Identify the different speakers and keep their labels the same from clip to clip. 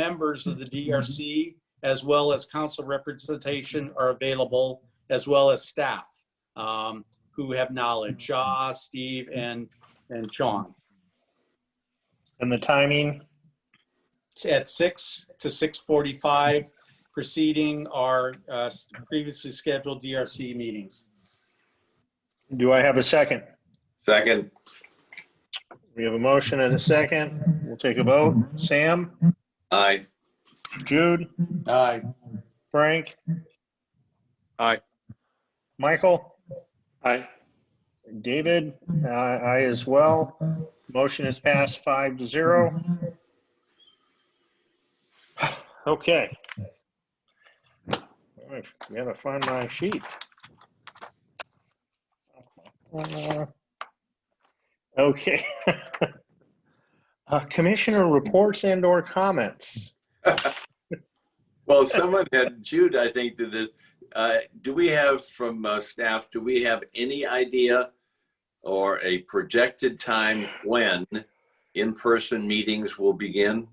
Speaker 1: members of the
Speaker 2: Mm-hmm.
Speaker 1: DRC, as well as council representation are available, as well as staff um, who have knowledge,
Speaker 2: Mm-hmm.
Speaker 1: Shaw, Steve, and, and Sean.
Speaker 3: And the timing,
Speaker 1: At 6 to 6:45, preceding our uh, previously scheduled DRC meetings.
Speaker 3: do I have a second?
Speaker 4: Second,
Speaker 3: We have a motion and a second. We'll take a vote. Sam,
Speaker 4: aye.
Speaker 3: Jude,
Speaker 1: Aye.
Speaker 3: Frank?
Speaker 5: Aye.
Speaker 3: Michael?
Speaker 5: Aye.
Speaker 3: David? Uh, Aye as well. Motion is passed five to zero. Okay. All right, I Gotta find my sheet. Uh, Okay. Uh, Commissioner reports and or comments.
Speaker 4: Well, someone had, Jude, I think, did this. Uh, Do we have from uh, staff, do we have any idea or a projected time when in-person meetings will begin?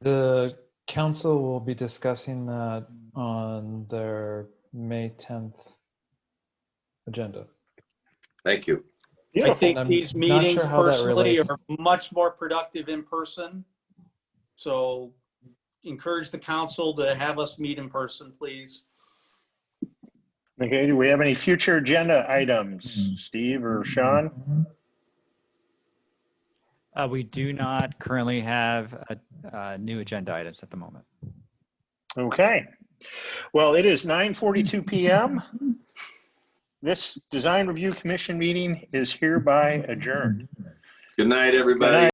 Speaker 2: The council will be discussing that on their May 10th agenda.
Speaker 4: Thank you.
Speaker 1: I
Speaker 3: Beautiful.
Speaker 1: think
Speaker 2: I'm
Speaker 1: these
Speaker 2: not
Speaker 1: meetings
Speaker 2: sure how that
Speaker 1: personally
Speaker 2: relates.
Speaker 1: are much more productive in person. So encourage the council to have us meet in person, please.
Speaker 3: Okay, do we have any future agenda items, Steve or Sean?
Speaker 6: Uh, we do not currently have uh uh new agenda items at the moment.
Speaker 3: Okay. Well, it is 9:42 PM. This Design Review Commission meeting is hereby adjourned.
Speaker 4: Good night, everybody.